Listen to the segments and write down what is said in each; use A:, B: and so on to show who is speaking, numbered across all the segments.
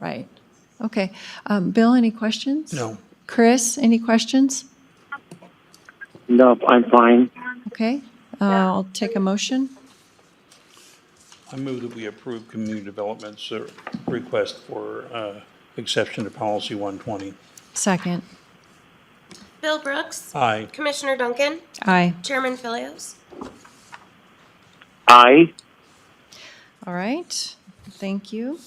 A: Right. Okay. Um, Bill, any questions?
B: No.
A: Chris, any questions?
C: No, I'm fine.
A: Okay. Uh, I'll take a motion.
B: I move that we approve community development's uh, request for uh, exception to policy 120.
A: Second.
D: Bill Brooks.
B: Aye.
D: Commissioner Duncan.
A: Aye.
D: Chairman Philios.
C: I,
A: All right, thank you.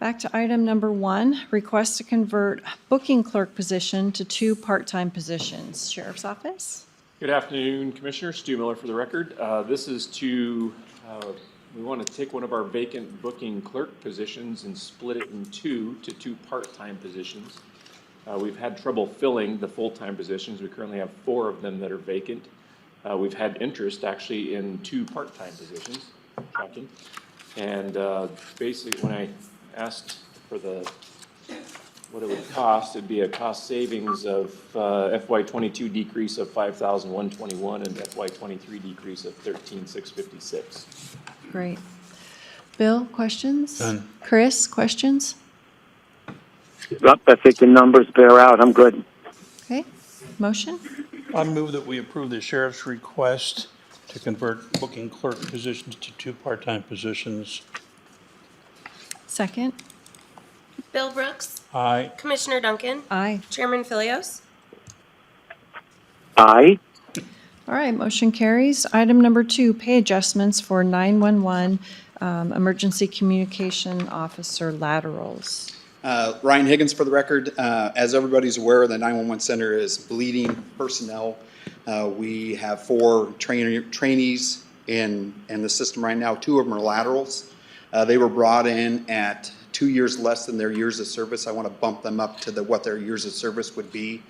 A: Back to item number one, request to convert booking clerk position to two part-time positions. Sheriff's Office?
E: Good afternoon, Commissioner. Stu Miller for the record. Uh, This is to, uh, we want to take one of our vacant booking clerk positions and split it in two to two part-time positions. Uh, We've had trouble filling the full-time positions. We currently have four of them that are vacant. Uh, We've had interest actually in two part-time positions, shocking. And uh, basically, when I asked for the what it would cost, it'd be a cost savings of uh, FY twenty-two decrease of five thousand one twenty-one and FY twenty-three decrease of thirteen six fifty-six.
A: Great. Bill, questions?
B: None.
A: Chris, questions?
C: Yep, I think the numbers bear out. I'm good.
A: Okay, motion?
B: I move that we approve the sheriff's request to convert booking clerk positions to two part-time positions.
A: Second?
D: Bill Brooks.
B: Aye.
D: Commissioner Duncan.
A: Aye.
D: Chairman Philios.
C: I,
A: All right, motion carries. Item number two, pay adjustments for 911 um, Emergency Communication Officer laterals.
F: Uh, Ryan Higgins for the record. Uh, As everybody's aware, the 911 center is bleeding personnel. Uh, We have four trainer- trainees in, in the system right now. Two of them are laterals. Uh, They were brought in at two years less than their years of service. I want to bump them up to the, what their years of service would be.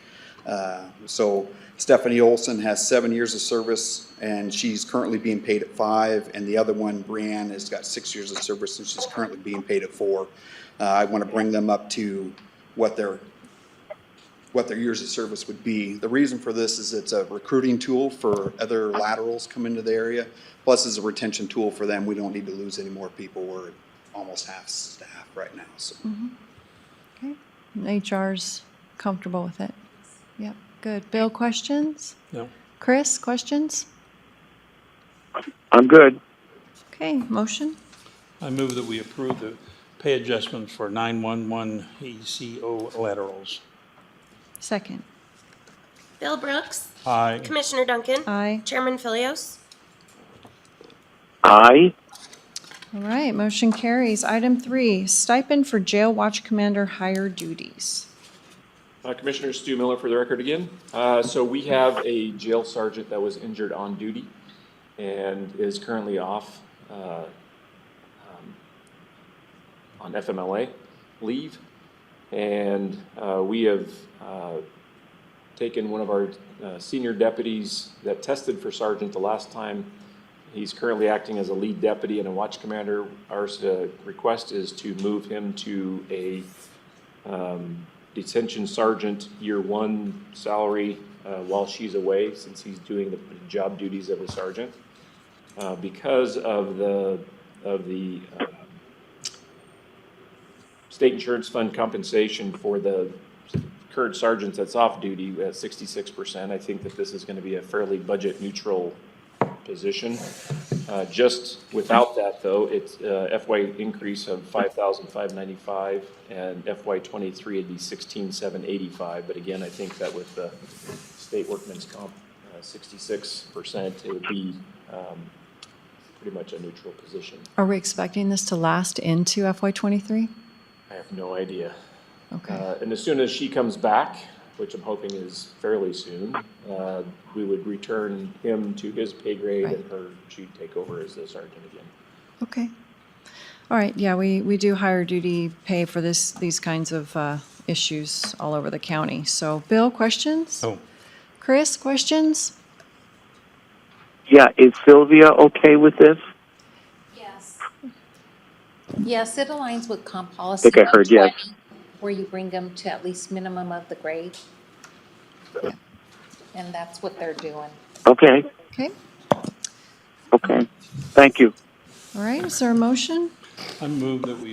F: Uh, So Stephanie Olson has seven years of service, and she's currently being paid at five, and the other one, Brianne, has got six years of service, and she's currently being paid at four. Uh, I want to bring them up to what their, what their years of service would be. The reason for this is it's a recruiting tool for other laterals come into the area, plus it's a retention tool for them. We don't need to lose any more people. We're almost half staff right now, so.
A: Okay, HR's comfortable with it. Yep, good. Bill, questions?
B: No.
A: Chris, questions?
C: I'm good.
A: Okay, motion?
B: I move that we approve the pay adjustments for 911 ECO E laterals.
A: Second.
D: Bill Brooks.
B: Aye.
D: Commissioner Duncan.
A: Aye.
D: Chairman Philios.
C: I,
A: All right, motion carries. Item three, stipend for jail watch commander higher duties.
E: Uh, Commissioner Stu Miller for the record again. Uh, So we have a jail sergeant that was injured on duty and is currently off uh, um, on FMLA leave. And uh, we have uh, taken one of our uh, senior deputies that tested for sergeant the last time. He's currently acting as a lead deputy and a watch commander. Our uh, request is to move him to a um, detention sergeant, year one salary, uh, while she's away, since he's doing the job duties of a sergeant. Uh, because of the, of the, um, state insurance fund compensation for the current sergeant that's off duty at sixty-six percent, I think that this is gonna be a fairly budget neutral position. Uh, just without that though, it's, uh, FY increase of five thousand five ninety-five and FY twenty-three it'd be sixteen seven eighty-five, but again, I think that with the state workman's comp, uh, sixty-six percent, it would be, um, pretty much a neutral position.
A: Are we expecting this to last into FY '23?
E: I have no idea.
A: Okay,
E: Uh, And as soon as she comes back, which I'm hoping is fairly soon, uh, we would return him to his pay grade
A: Right.
E: and her, she'd take over as the sergeant again.
A: okay. All right, yeah, we, we do higher duty pay for this, these kinds of uh, issues all over the county. So Bill, questions?
B: Oh,
A: Chris, questions?
C: yeah, is Sylvia okay with this?
G: Yes. Yes, it aligns with comp policy.
C: Think I heard yes.
G: 120, Where you bring them to at least minimum of the grade. And that's what they're doing.
C: Okay,
A: Okay,
C: okay. Thank you.
A: all right, is there a motion?
B: I move that we